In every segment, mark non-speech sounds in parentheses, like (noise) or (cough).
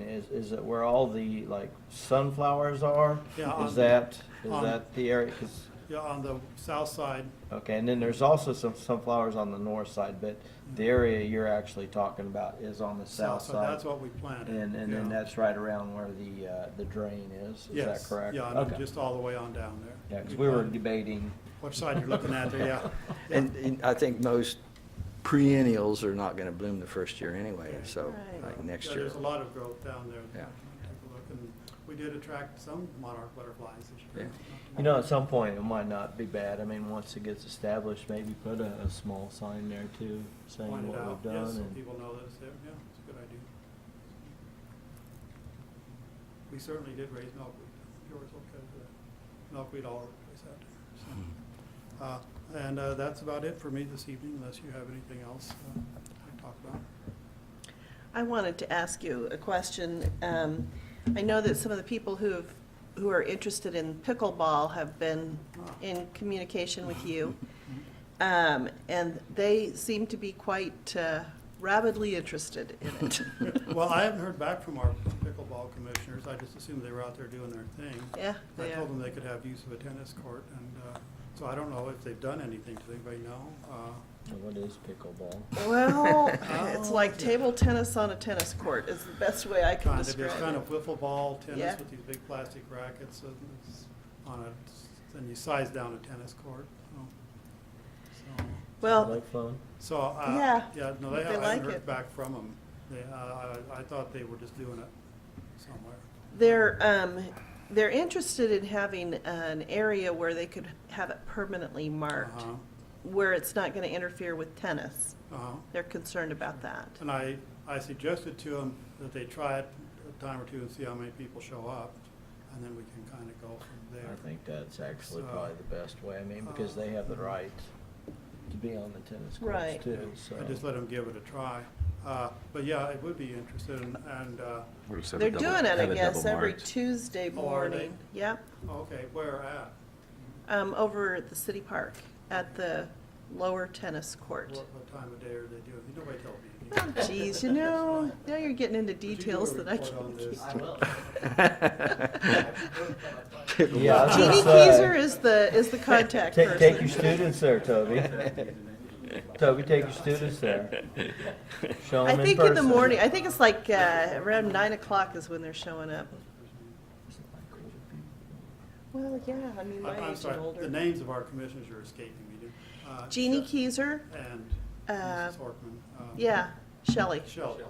is, is that where all the, like, sunflowers are? Yeah, on- Is that, is on- that the area, 'cause- Yeah, on the south side, okay, and then there's also some sunflowers on the north side, but the area you're actually talking about is on the south south side, side. that's what we planted. And, and yeah. then that's right around where the, uh, the drain is, is that Yes, correct? Yeah, and Okay. then just all the way on down there. Yeah, 'cause we were planted- debating, Which side you're looking at (laughs) there, yeah. yeah. (laughs) And, and I think most perennials are not gonna bloom the first year anyway, so, Right. like next Yeah, year. There's a lot of growth down there. Yeah. Take a look, and we did attract some monarch butterflies this year. you know, at some point, it might not be bad. I mean, once it gets established, maybe put a, a small sign there too, saying Point it what out, we've yes, done so and. people know that it's there, yeah, it's a good idea. We certainly did raise milkweed, yours will cut the milkweed all over the place out there, so. Uh, And uh, that's about it for me this evening, unless you have anything else uh, to talk about. I wanted to ask you a question. Um, I know that some of the people who have, who are interested in pickleball have been in communication with you. Um, and they seem to be quite uh, rabidly interested in it. (laughs) Well, I haven't heard back from our pickleball commissioners, I just assumed they were out there doing their thing. Yeah, I they are. told them they could have use of a tennis court, and uh, so I don't know if they've done anything, does anybody know? Uh, What is pickleball? Well, it's Oh. like table tennis on a tennis court is the best way I can Kind of, describe it's kind it. of wiffle ball Yeah. tennis with these big plastic rackets, and it's on a, and you size down a tennis court, so. so- Well, Like fun? So, uh, Yeah, yeah, no, they they haven't I like haven't it. heard back from them. They, uh, I, I thought they were just doing it somewhere. They're, um, they're interested in having an area where they could have it permanently marked, Uh-huh, where it's not gonna interfere with tennis. Uh-huh. They're concerned about that. And I, I suggested to them that they try it a time or two and see how many people show up, and then we can kind of go from there. I think that's actually So- um, probably the best way, I mean, because they have the right to be on the tennis Right. courts too, so. I just let them give it a try. Uh, But yeah, I would be interested, in- and, uh, They're doing it, I guess, (laughs) every Tuesday Oh, are they? morning. Yep, oh, okay, where at? um, over at the city park, at the lower tennis What, court. what time of day are they doing? Nobody told me. Oh, geez, you know, now you're getting into you do a details that I report on can't this? keep. I Yeah, I was gonna Jeannie say, Keiser is the, is the contact Take, (laughs) take your person. students there, Toby. (laughs) Toby, take your students there. Show I them in think in the person. morning, I think it's like, uh, around nine o'clock is when they're showing up. Well, yeah, I mean, Uh, I'm- my I'm age and sorry, the older. names of our commissioners are escaping me. dude. Uh, Jeannie Sher- Keiser, And uh, Mrs. Horkman. um, yeah, Shelley. Sheldon.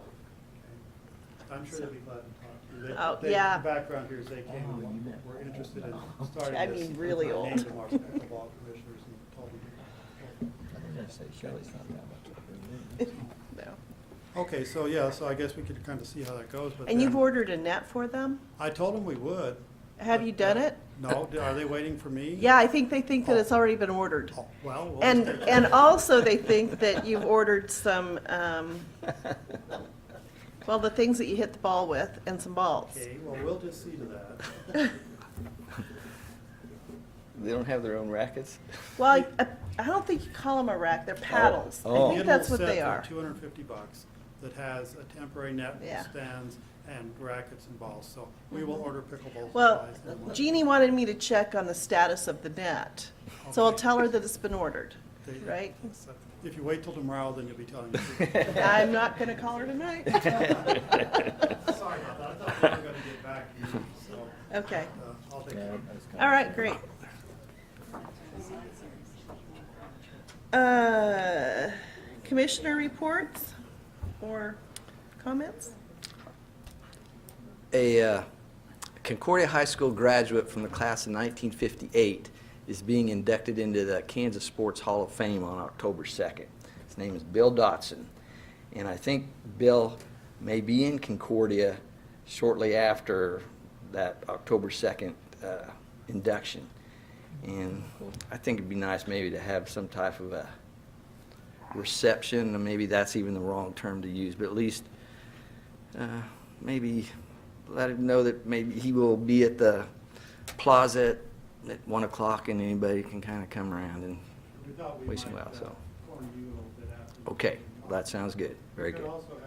I'm sure they'll be glad to Oh, talk to you. They- they- yeah. The background here is they came Oh, you meant- and were interested (laughs) in I starting this. mean, really and I old. named them our pickleball commissioners and told them. (laughs) (laughs) No. Okay, so yeah, so I guess we could kind of see how that goes, but. And you've then- ordered a net for them? I told them we would. Have but, you done uh, it? No, d- are they waiting for me? Yeah, I think they think that it's already been ordered. Oh, Well. we'll And, see. and also they think that you've ordered some, um, (laughs) well, the things that you hit the ball with and some balls. Okay, well, we'll just see to that. They don't have their own rackets? (laughs) Well, I, I don't think you call them a rack, they're paddles. Oh. I think that's what they are. Two hundred and fifty bucks that has a temporary net Yeah. Mm-hmm. with stands and rackets and balls, so we will order pickleball Well, supplies. and what- Jeannie wanted me to check on the status of the net, so I'll tell her that it's been ordered, There you go. right? So (laughs) If you wait till tomorrow, then you'll be telling me. (laughs) I'm not gonna call her tonight. (laughs) (laughs) Sorry about that, I thought we were gonna get back to you, so, (laughs) Okay, uh, I'll take care of it. all right, great. Uh, Commissioner reports or comments? A uh, Concordia High School graduate from the class of 1958 is being inducted into the Kansas Sports Hall of Fame on October 2nd. His name is Bill Dotson. And I think Bill may be in Concordia shortly after that October 2nd uh, induction. And I think it'd be nice maybe to have some type of a reception, and maybe that's even the wrong term to use, but at least uh, maybe let him know that maybe he will be at the plaza at, at one o'clock and anybody can kind of come around and, We thought we Wait a might, while, uh, so. corner you a little bit after. okay, that sounds good, very We could good. also